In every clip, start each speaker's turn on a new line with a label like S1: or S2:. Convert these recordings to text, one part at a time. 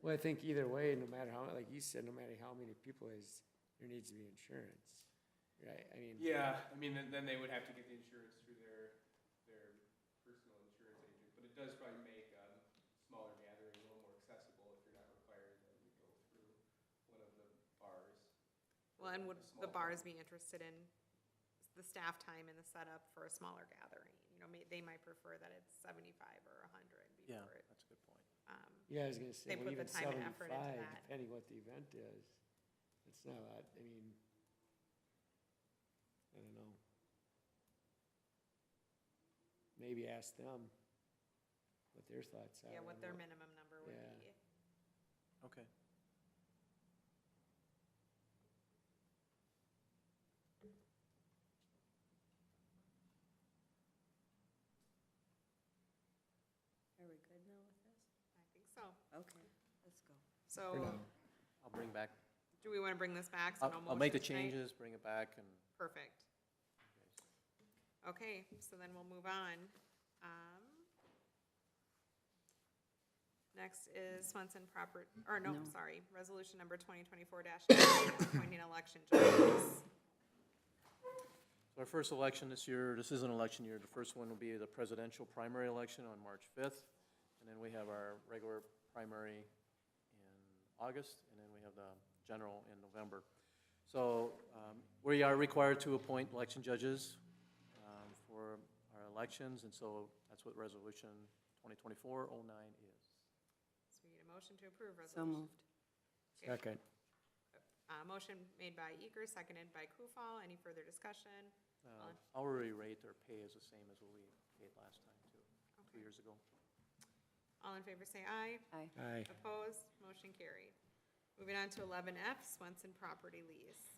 S1: Well, I think either way, no matter how, like you said, no matter how many people is, there needs to be insurance, right? I mean.
S2: Yeah, I mean, then, then they would have to get the insurance through their, their personal insurance agent, but it does probably make, um, smaller gathering a little more accessible if you're not requiring them to go through one of the bars.
S3: Well, and would
S2: A
S3: the
S2: small
S3: bars
S2: venue.
S3: be interested in the staff time and the setup for a smaller gathering? You know, may, they might prefer that it's seventy-five or a hundred
S4: Yeah,
S3: before it,
S4: that's a good point.
S3: um,
S1: Yeah, I was gonna say,
S3: They
S1: well,
S3: put the
S1: even
S3: time and effort into
S1: seventy-five,
S3: that.
S1: depending what the event is, it's not, a lot- I mean, I don't know. Maybe ask them what their thoughts are.
S3: yeah,
S1: on
S3: what their minimum number would
S1: yeah.
S3: be.
S4: Okay.
S5: Are we good now with this?
S3: I think so.
S5: Okay, let's go.
S1: for
S3: So,
S1: now.
S4: I'll bring back,
S3: do we wanna bring this back? So
S4: I'll,
S3: no
S4: I'll make the
S3: motion tonight?
S4: changes, bring it back and.
S3: Perfect. Okay, so then we'll move on. Um, Next is Swenson proper, or no,
S5: No.
S3: sorry, resolution number twenty twenty-four appointing election judges.
S4: So our first election this year, this is an election year, the first one will be the presidential primary election on March fifth. And then we have our regular primary in August, and then we have the general in November. So um, we are required to appoint election judges um, for our elections, and so that's what resolution 2024-09 is.
S3: So we need a motion to approve
S5: So
S3: resolution.
S5: moved.
S3: Okay.
S1: Second,
S3: Uh, motion made by Eager, seconded by Kufal. Any further discussion?
S4: Uh, Hourly rate or pay is the same as what we paid last time, too, two
S3: Okay.
S4: years ago.
S3: All in favor say aye.
S5: Aye.
S1: aye,
S3: Opposed, motion carried. Moving on to eleven F, Swenson property lease.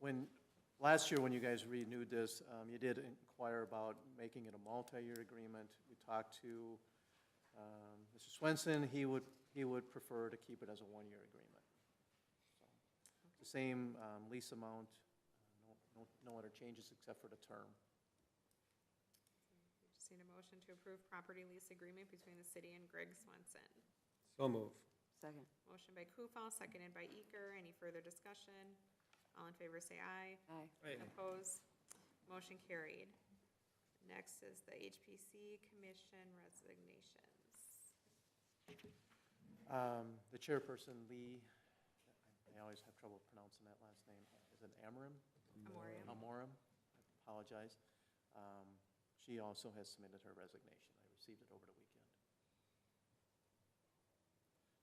S4: When, last year, when you guys renewed this, um, you did inquire about making it a multi-year agreement. We talked to um, Mr. Swenson, he would, he would prefer to keep it as a one-year agreement. So, it's The same um, lease amount, uh, no, no- no other changes except for the term.
S3: We Just need a motion to approve property lease agreement between the city and Greg Swenson.
S1: so move,
S5: Second.
S3: Motion by Kufal, seconded by Eager. Any further discussion? All in favor say aye.
S5: Aye.
S3: Opposed, motion carried. Next is the HPC Commission resignations.
S4: Um, The chairperson, Lee, I always have trouble pronouncing that last name, is it Amarim?
S3: Memoriam.
S4: Amorum, I apologize. Um, She also has submitted her resignation. I received it over the weekend.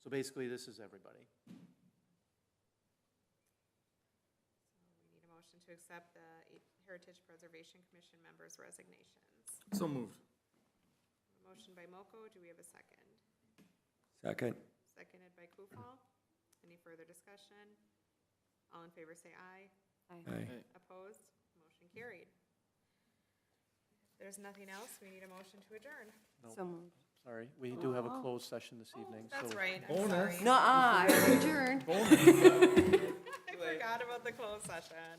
S4: So basically, this is everybody.
S3: So we need a motion to accept the H- Heritage Preservation Commission members' resignations.
S6: So moved.
S3: Motion by Moko, do we have a second?
S1: second,
S3: Seconded by Kufal. Any further discussion? All in favor say aye.
S1: aye,
S3: Opposed? Motion carried. There's nothing else. We need a motion to adjourn.
S4: No,
S5: So moved.
S4: Sorry, we do have a
S5: Oh.
S4: closed session this evening, so.
S3: That's right. I'm
S6: Bonus.
S3: sorry.
S5: nuh adjourned.
S3: I forgot about the closed session.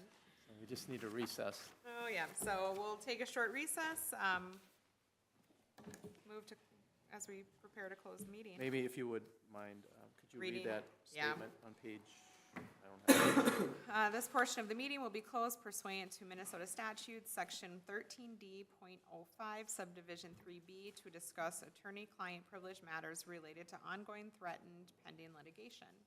S4: so We just need to recess.
S3: Oh, yeah. So we'll take a short recess. um, Move to, as we prepare to close the meeting.
S4: Maybe if you would mind, uh, could you
S3: Reading,
S4: read that
S3: yeah.
S4: statement on page? I don't have it.
S3: Uh, This portion of the meeting will be closed pursuant to Minnesota statute, section thirteen d05 subdivision three B, to discuss attorney-client privilege matters related to ongoing threatened pending litigation.